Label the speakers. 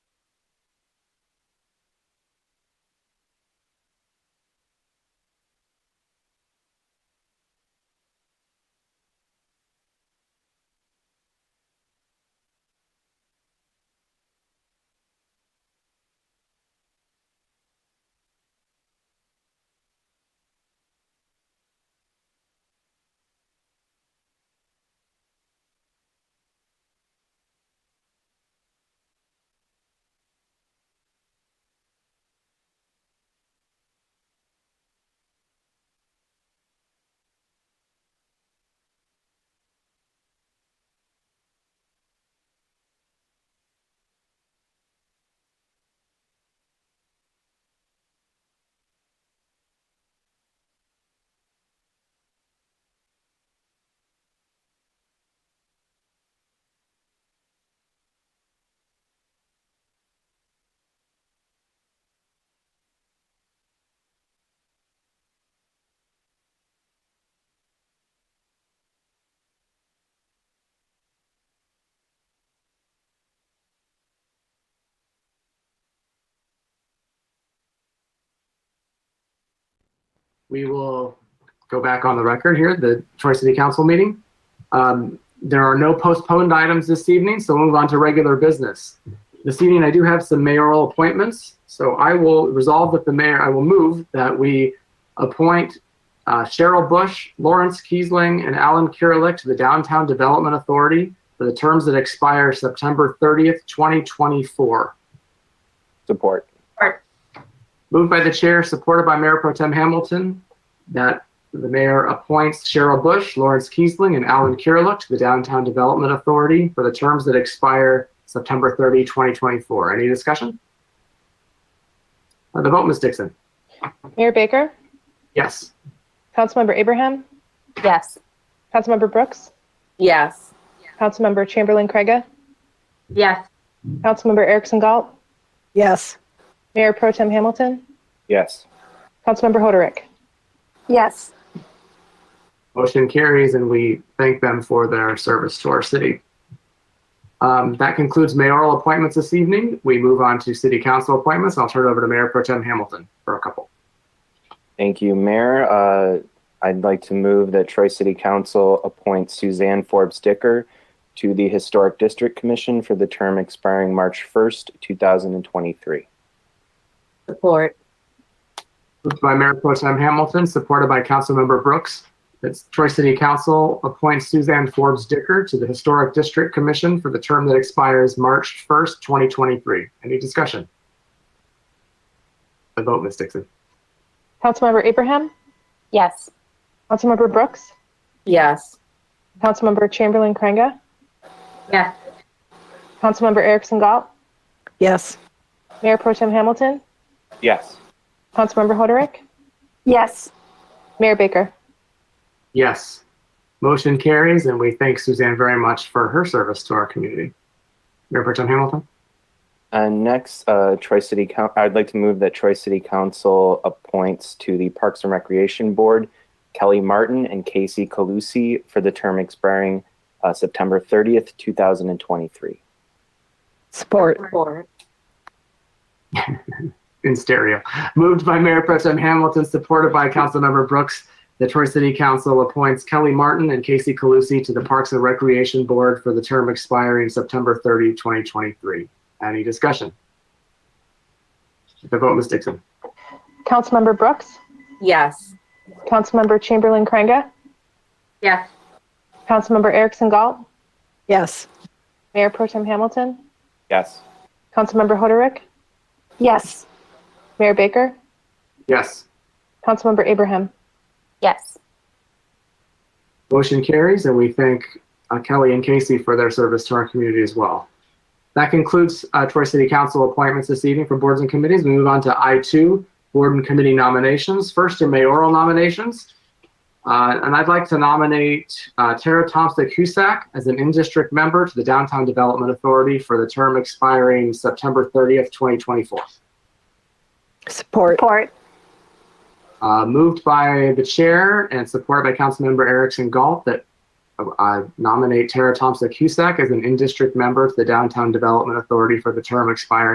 Speaker 1: we will go back on the record here, the Troy City Council meeting. Um, There are no postponed items this evening, so we'll move on to regular business. This evening, I do have some mayoral appointments, so I will resolve that the mayor, I will move that we appoint uh, Cheryl Bush, Lawrence Kiesling, and Alan Kirillick to the Downtown Development Authority for the terms that expire September 30th, 2024.
Speaker 2: Support.
Speaker 1: Moved by the chair, supported by Mayor Pro Tem Hamilton, that the mayor appoints Cheryl Bush, Lawrence Kiesling, and Alan Kirillick to the Downtown Development Authority for the terms that expire September 30, 2024. Any discussion? Uh, The vote, Ms. Dixon?
Speaker 3: Mayor Baker,
Speaker 1: Yes.
Speaker 3: Councilmember Abraham,
Speaker 4: Yes.
Speaker 3: Councilmember Brooks,
Speaker 4: Yes.
Speaker 3: Councilmember Chamberlain Craig,
Speaker 4: Yes.
Speaker 3: Councilmember Erickson Galt. Yes. Mayor Pro Tem Hamilton,
Speaker 2: Yes.
Speaker 3: Councilmember Hoderick.
Speaker 4: Yes.
Speaker 1: Motion carries, and we thank them for their service to our city. Um, That concludes mayoral appointments this evening. We move on to city council appointments. I'll turn it over to Mayor Pro Tem Hamilton for a couple.
Speaker 2: Thank you, Mayor. Uh, I'd like to move that Troy City Council appoint Suzanne Forbes Dicker to the Historic District Commission for the term expiring March 1st, 2023.
Speaker 4: Support.
Speaker 1: Moved by Mayor Pro Tem Hamilton, supported by Councilmember Brooks. That's Troy City Council appoints Suzanne Forbes Dicker to the Historic District Commission for the term that expires March 1st, 2023. Any discussion? The vote, Ms. Dixon.
Speaker 3: Councilmember Abraham,
Speaker 4: Yes.
Speaker 3: Councilmember Brooks,
Speaker 4: Yes.
Speaker 3: Councilmember Chamberlain Craig,
Speaker 4: Yes.
Speaker 3: Councilmember Erickson Galt,
Speaker 5: Yes.
Speaker 3: Mayor Pro Tem Hamilton,
Speaker 2: Yes.
Speaker 3: Councilmember Hoderick,
Speaker 4: Yes.
Speaker 3: Mayor Baker.
Speaker 1: Yes. Motion carries, and we thank Suzanne very much for her service to our community. Mayor Pro Tem Hamilton?
Speaker 2: Uh, next, uh, Troy City Coun I'd like to move that Troy City Council appoints to the Parks and Recreation Board Kelly Martin and Casey Calusi for the term expiring uh, September 30th, 2023.
Speaker 5: Support.
Speaker 4: Support.
Speaker 1: in stereo. Moved by Mayor Pro Tem Hamilton, supported by Councilmember Brooks. The Troy City Council appoints Kelly Martin and Casey Calusi to the Parks and Recreation Board for the term expiring September 30, 2023. Any discussion? The vote, Ms. Dixon.
Speaker 3: Councilmember Brooks,
Speaker 4: Yes.
Speaker 3: Councilmember Chamberlain Craig,
Speaker 4: Yes.
Speaker 3: Councilmember Erickson Galt,
Speaker 5: Yes.
Speaker 3: Mayor Pro Tem Hamilton,
Speaker 2: Yes.
Speaker 3: Councilmember Hoderick,
Speaker 4: Yes.
Speaker 3: Mayor Baker,
Speaker 1: Yes.
Speaker 3: Councilmember Abraham.
Speaker 4: Yes.
Speaker 1: Motion carries, and we thank uh, Kelly and Casey for their service to our community as well. That concludes uh, Troy City Council appointments this evening for boards and committees. We move on to I2, board and committee nominations. First are mayoral nominations. Uh, And I'd like to nominate uh, Tara Thompson Cusack as an in-district member to the Downtown Development Authority for the term expiring September 30th, 2024.
Speaker 5: Support.
Speaker 4: Support.
Speaker 1: Uh, moved by the chair and supported by Councilmember Erickson Galt that uh, I nominate Tara Thompson Cusack as an in-district member to the Downtown Development Authority for the term expiring